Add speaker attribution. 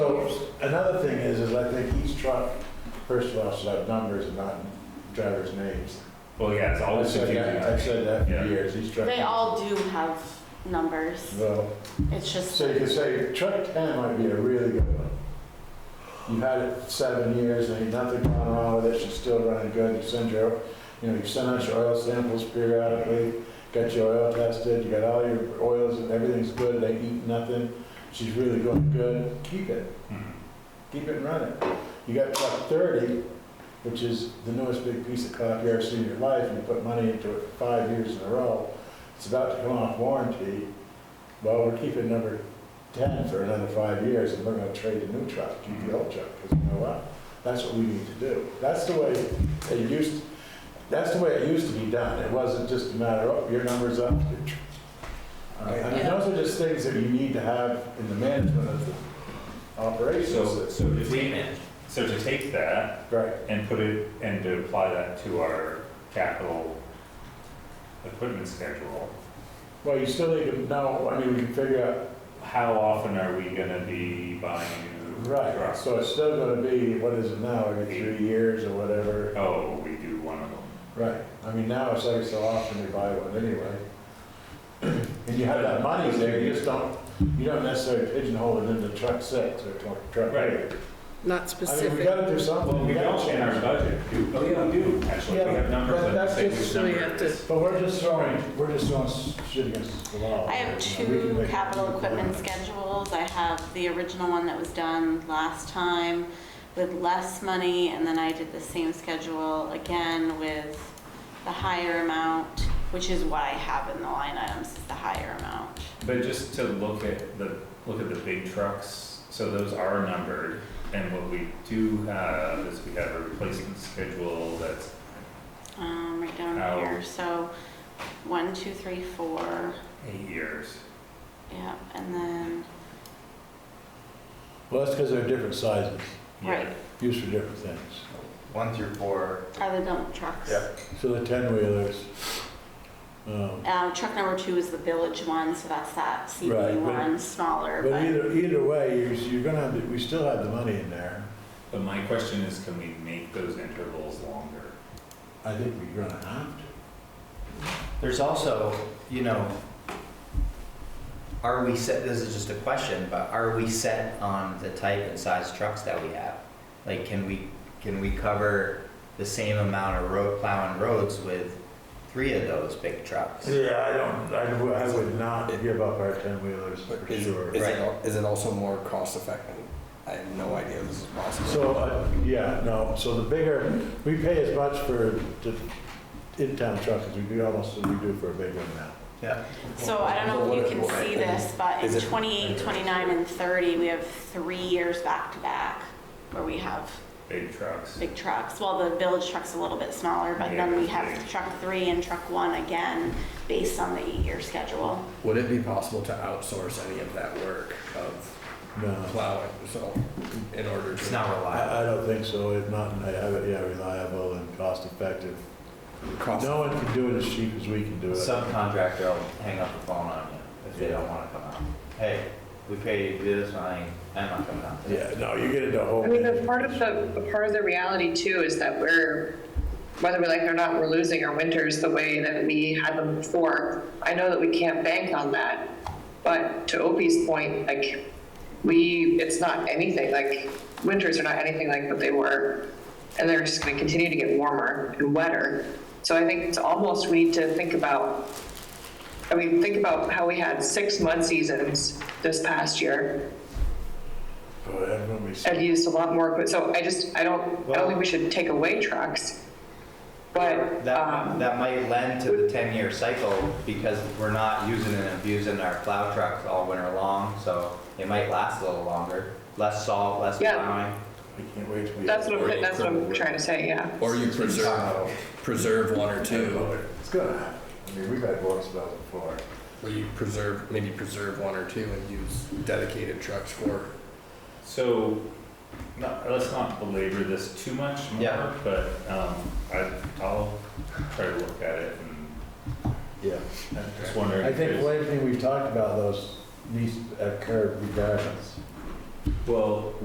Speaker 1: another thing is, is I think each truck, first of all, should have numbers and not drivers' names.
Speaker 2: Well, yeah, it's
Speaker 1: I've
Speaker 2: always
Speaker 1: said that, I've
Speaker 2: confusing.
Speaker 1: said that
Speaker 2: Yeah.
Speaker 1: for years, each truck.
Speaker 3: They all do have numbers.
Speaker 1: Well,
Speaker 3: It's just,
Speaker 1: so you could say truck ten might be a really good one. You've had it seven years, and ain't nothing gone wrong with it, she's still running good, you send your, you know, you send out your oil samples periodically, got your oil tested, you got all your oils and everything's good, they eat nothing, she's really going good, keep it.
Speaker 2: Mhm.
Speaker 1: keep it running. You got truck thirty, which is the newest big piece of crap you ever seen in your life, and you put money into it for five years in a row. It's about to come off warranty. Well, we're keeping number ten for another five years, and we're gonna trade the new truck, keep the old truck, because you know what? That's what we need to do. That's the way it used, that's the way it used to be done. It wasn't just a matter of, "Oh, your number's up. your tr-" All right, I mean,
Speaker 3: Yeah.
Speaker 1: those are just things that you need to have in the management of the
Speaker 2: So,
Speaker 1: operations.
Speaker 2: so if we, so to take that
Speaker 1: Right.
Speaker 2: and put it, and to apply that to our capital equipment schedule,
Speaker 1: Well, you still need to know, I mean, we can figure
Speaker 2: how often are we gonna be buying
Speaker 1: out,
Speaker 2: new
Speaker 1: right,
Speaker 2: trucks?
Speaker 1: so it's still gonna be, what is it now, every three years or whatever,
Speaker 2: Oh, we do one of them.
Speaker 1: right. I mean, now it's every so often we buy one anyway. And you have that money there, you just don't, you don't necessarily pigeonhole it into truck six or tw- truck eight.
Speaker 4: Not
Speaker 1: I mean, we
Speaker 4: specific.
Speaker 1: gotta do something.
Speaker 2: Well, we
Speaker 1: gotta
Speaker 2: don't in our
Speaker 1: change.
Speaker 2: budget, do, oh, yeah, we do, actually, we
Speaker 1: Yeah,
Speaker 2: have numbers
Speaker 1: but
Speaker 2: that
Speaker 1: that's
Speaker 2: say
Speaker 1: just-
Speaker 2: which
Speaker 4: So we
Speaker 2: number
Speaker 4: have
Speaker 2: it
Speaker 4: to-
Speaker 2: is.
Speaker 1: But we're just throwing, we're just throwing shit against the wall.
Speaker 3: I
Speaker 1: You
Speaker 3: have
Speaker 1: know, we can
Speaker 3: two
Speaker 1: make-
Speaker 3: capital equipment schedules. I have the original one that was done last time with less money, and then I did the same schedule again with the higher amount, which is what I have in the line items, is the higher amount.
Speaker 2: But just to look at the, look at the big trucks, so those are numbered, and what we do have is we have a replacement schedule that's,
Speaker 3: Um, right down
Speaker 2: How-
Speaker 3: here, so one, two, three, four,
Speaker 2: eight years.
Speaker 3: yeah, and then,
Speaker 1: Well, that's because they're different sizes,
Speaker 2: Yeah.
Speaker 3: right,
Speaker 1: used for different things.
Speaker 5: One through four,
Speaker 3: are the dump trucks.
Speaker 5: Yeah.
Speaker 1: So the ten wheelers, um,
Speaker 3: Uh, truck number two is the village one, so that's that
Speaker 1: Right,
Speaker 3: CB
Speaker 1: but-
Speaker 3: one, smaller,
Speaker 1: But
Speaker 3: but
Speaker 1: either, either way, you're, you're gonna have, to- we still have the money in there.
Speaker 2: But my question is, can we make those intervals longer?
Speaker 1: I think we're gonna have to.
Speaker 5: there's also, you know, are we set, this is just a question, but are we set on the type and size trucks that we have? Like, can we, can we cover the same amount of road plowing roads with three of those big trucks?
Speaker 1: Yeah, I don't, I would, I would not give up our ten wheelers
Speaker 6: But
Speaker 1: for
Speaker 6: is,
Speaker 1: sure.
Speaker 6: is,
Speaker 5: Right.
Speaker 6: it, al- is it also more cost effective? I have no idea this is possible.
Speaker 1: So, uh, yeah, no, so the bigger, we pay as much for the in-town truck as we do almost as we do for a big one now.
Speaker 5: Yeah.
Speaker 3: so I don't know if you can see this, but in
Speaker 6: Is it-
Speaker 3: 28, 29, and 30, we have three years back to back where we have
Speaker 2: Big trucks?
Speaker 3: big trucks. Well, the village truck's a little bit smaller, but then we have truck three and truck one again, based on the eight-year schedule.
Speaker 6: Would it be possible to outsource any of that work of
Speaker 1: No,
Speaker 6: plowing? So, in order to
Speaker 5: It's not reliable.
Speaker 1: I, I don't think so, if not, I have it, yeah, reliable and cost-effective.
Speaker 6: cost,
Speaker 1: No one can do it as cheap as we can do it.
Speaker 5: Subcontractor will hang up the phone on you if they don't wanna come out. Hey, we paid you to do this, I ain't, I'm not coming out.
Speaker 1: Yeah, no, you get into a whole.
Speaker 7: I mean, but part of the, but part of the reality too is that we're, whether we like it or not, we're losing our winters the way that we had them before. I know that we can't bank on that, but to Opie's point, like, we, it's not anything, like, winters are not anything like what they were. And they're just gonna continue to get warmer and wetter. So I think it's almost, we need to think about I mean, think about how we had six mud seasons this past year
Speaker 1: Boy, that would be so-
Speaker 7: and used a lot more. But so I just, I don't, I don't think we should take away trucks. But
Speaker 5: That,
Speaker 7: um,
Speaker 5: that might lend to the ten-year cycle because we're not using and abusing our plow trucks all winter long, so it might last a little longer. Less salt, less
Speaker 7: Yeah.
Speaker 1: I
Speaker 5: plowing.
Speaker 1: can't wait to be.
Speaker 7: that's what I'm, that's what I'm trying to say. Yeah.
Speaker 6: or you preserve
Speaker 5: So,
Speaker 6: preserve one or two,
Speaker 1: It's gonna happen. I mean, we've had war spells before.
Speaker 6: where you preserve maybe preserve one or two and use dedicated trucks for.
Speaker 2: So, not, let's not belabor this too much
Speaker 5: Yeah.
Speaker 2: more, but, um, I, I'll try to look at it and
Speaker 1: Yeah.
Speaker 2: just wondering.
Speaker 1: I think
Speaker 2: if-
Speaker 1: well, everything we've talked about, those needs to occur regardless.
Speaker 2: Well,